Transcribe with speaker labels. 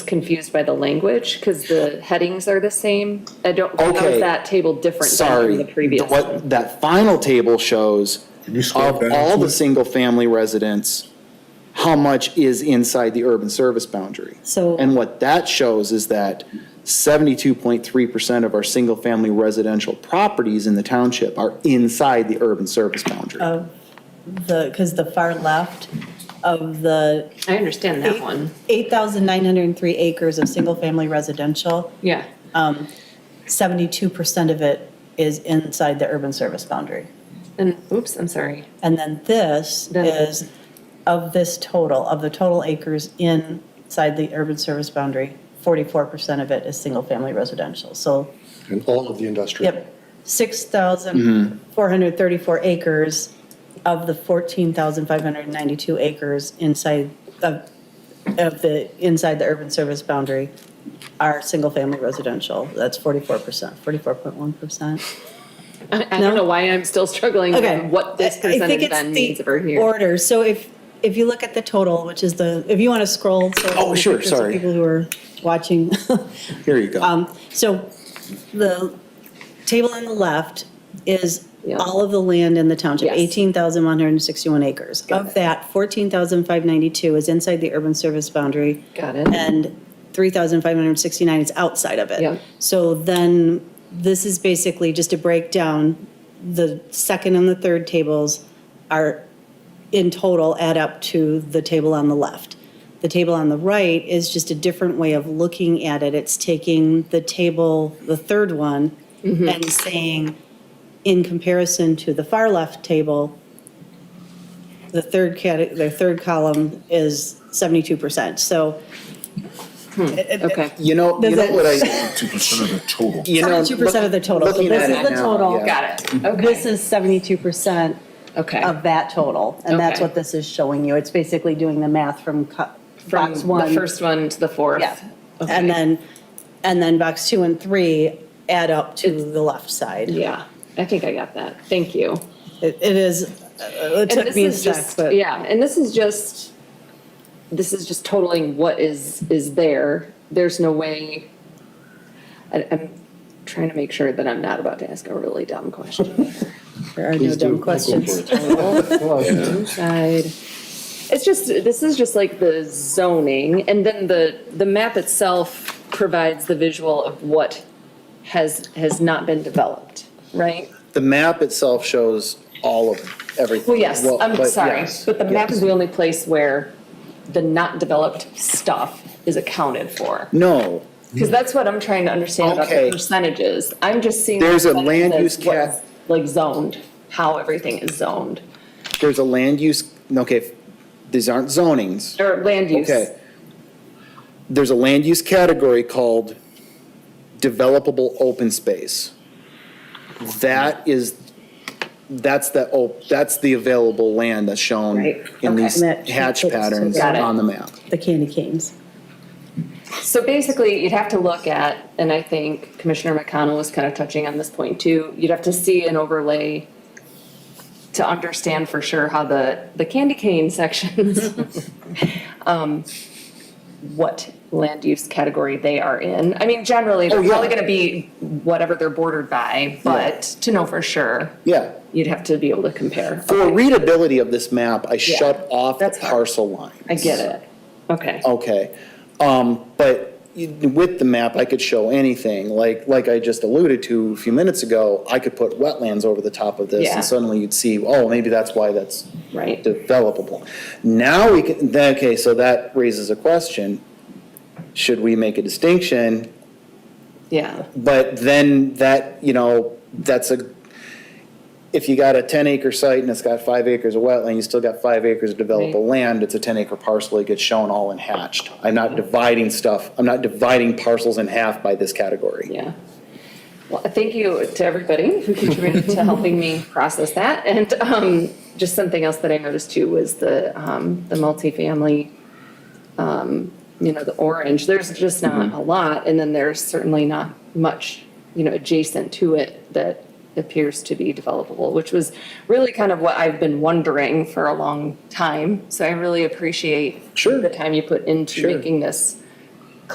Speaker 1: confused by the language because the headings are the same. I don't, how
Speaker 2: Okay.
Speaker 1: is that table different than from
Speaker 2: Sorry,
Speaker 1: the previous? one?
Speaker 2: what that final table shows
Speaker 3: Can you scroll
Speaker 2: of
Speaker 3: down,
Speaker 2: all the
Speaker 3: please?
Speaker 2: single-family residents, how much is inside the urban service boundary?
Speaker 4: So-
Speaker 2: And what that shows is that seventy-two point three percent of our single-family residential properties in the township are inside the urban service boundary.
Speaker 4: the, because the far left of the
Speaker 1: I understand that one.
Speaker 4: 8,903 acres of single-family residential,
Speaker 1: Yeah.
Speaker 4: 72% of it is inside the urban service boundary.
Speaker 1: And, oops, I'm sorry.
Speaker 4: And then this
Speaker 1: Then-
Speaker 4: is of this total, of the total acres inside the urban service boundary, 44% of it is single-family residential. So,
Speaker 3: And all of the industrial.
Speaker 4: yep, 6,434 acres of the 14,592 acres inside of, of the, inside the urban service boundary are single-family residential. That's 44%, 44.1%.
Speaker 1: I I don't
Speaker 4: No?
Speaker 1: know why I'm still struggling
Speaker 4: Okay.
Speaker 1: with what this
Speaker 4: I- I think
Speaker 1: percentage
Speaker 4: it's
Speaker 1: then
Speaker 4: the
Speaker 1: means over here.
Speaker 4: Order, so if, if you look at the total, which is the, if you want to scroll. so
Speaker 2: Oh, sure,
Speaker 4: there's some
Speaker 2: sorry.
Speaker 4: People who are watching.
Speaker 2: Here you go.
Speaker 4: Um, So the table on the left is
Speaker 1: Yeah.
Speaker 4: all of the land in the township,
Speaker 1: Yes.
Speaker 4: 18,161 acres.
Speaker 1: Got
Speaker 4: Of
Speaker 1: it.
Speaker 4: that, 14,592 is inside the urban service boundary.
Speaker 1: Got it.
Speaker 4: And 3,569 is outside of
Speaker 1: Yeah.
Speaker 4: it. So then, this is basically just a breakdown. The second and the third tables are, in total, add up to the table on the left. The table on the right is just a different way of looking at it. It's taking the table, the third one,
Speaker 1: Mm-hmm.
Speaker 4: and saying, in comparison to the far left table, the third cate, the third column is 72%. So
Speaker 1: Okay.
Speaker 2: You know, you
Speaker 4: Does
Speaker 2: know
Speaker 4: it-
Speaker 2: what I,
Speaker 3: Two percent of the total.
Speaker 2: you know.
Speaker 4: 72% of the total. So
Speaker 2: looking
Speaker 4: this
Speaker 2: at
Speaker 4: is
Speaker 2: it
Speaker 4: the
Speaker 2: now,
Speaker 4: total.
Speaker 2: yeah.
Speaker 1: Got it.
Speaker 4: this
Speaker 1: Okay.
Speaker 4: is 72%
Speaker 1: Okay.
Speaker 4: of that total. And that's
Speaker 1: Okay.
Speaker 4: what this is showing you. It's basically doing the math from co-
Speaker 1: From
Speaker 4: box one.
Speaker 1: the first one to the fourth.
Speaker 4: Yeah.
Speaker 1: Okay.
Speaker 4: And then, and then box two and three add up to the left side.
Speaker 1: Yeah, I think I got that. Thank you.
Speaker 4: It it is, uh, it
Speaker 1: And
Speaker 4: took
Speaker 1: this
Speaker 4: me a
Speaker 1: is
Speaker 4: sec,
Speaker 1: just-
Speaker 4: but.
Speaker 1: Yeah, and this is just, this is just totaling what is, is there. There's no way, I, I'm trying to make sure that I'm not about to ask a really dumb question.
Speaker 4: There are no dumb questions.
Speaker 1: Side. It's just, this is just like the zoning, and then the, the map itself provides the visual of what has, has not been developed, right?
Speaker 2: The map itself shows all of everything.
Speaker 1: Well, yes, I'm
Speaker 2: but
Speaker 1: sorry,
Speaker 2: yes,
Speaker 1: but the map
Speaker 2: yes.
Speaker 1: is the only place where the not developed stuff is accounted for.
Speaker 2: No,
Speaker 1: Because that's what I'm trying to understand about the
Speaker 2: Okay.
Speaker 1: percentages. I'm just seeing.
Speaker 2: There's a
Speaker 1: percentages
Speaker 2: land use
Speaker 1: of what's,
Speaker 2: cap.
Speaker 1: Like zoned, how everything is zoned,
Speaker 2: there's a land use, okay, these aren't zonings.
Speaker 1: or land use.
Speaker 2: Okay. There's a land use category called developable open space. That is, that's the, op- that's the available land that's
Speaker 1: Right,
Speaker 2: shown in
Speaker 1: okay.
Speaker 2: these
Speaker 4: That-
Speaker 2: hatch patterns
Speaker 1: Got it.
Speaker 2: on the map.
Speaker 4: The candy canes.
Speaker 1: So basically, you'd have to look at, and I think Commissioner McConnell was kind of touching on this point too, you'd have to see an overlay to understand for sure how the, the candy cane sections, um, what land use category they are in. I mean, generally, they're
Speaker 2: Oh, yeah.
Speaker 1: probably gonna be whatever they're bordered by, but to know for sure,
Speaker 2: Yeah.
Speaker 1: you'd have to be able to compare.
Speaker 2: For readability of this map, I shut off the
Speaker 1: that's fine.
Speaker 2: parcel lines.
Speaker 1: I get it. Okay.
Speaker 2: Okay, um, but you- with the map, I could show anything, like, like I just alluded to a few minutes ago, I could put wetlands over the top of this,
Speaker 1: Yeah.
Speaker 2: and suddenly you'd see, oh, maybe that's why that's
Speaker 1: Right.
Speaker 2: developable. Now we can, then, okay, so that raises a question, should we make a distinction?
Speaker 1: Yeah.
Speaker 2: But then that, you know, that's a, if you got a ten acre site and it's got five acres of wetland, you still got five acres of developable land, it's a ten acre parcel, it gets shown all in hatched. I'm not dividing stuff, I'm not dividing parcels in half by this category.
Speaker 1: Yeah. Well, thank you to everybody who contributed to helping me process that. And um, just something else that I noticed too was the, um, the multifamily, um, you know, the orange, there's just
Speaker 2: Mm-hmm.
Speaker 1: not a lot. And then there's certainly not much, you know, adjacent to it that appears to be developable, which was really kind of what I've been wondering for a long time. So I really appreciate
Speaker 2: Sure.
Speaker 1: the time you put into
Speaker 2: Sure.
Speaker 1: making this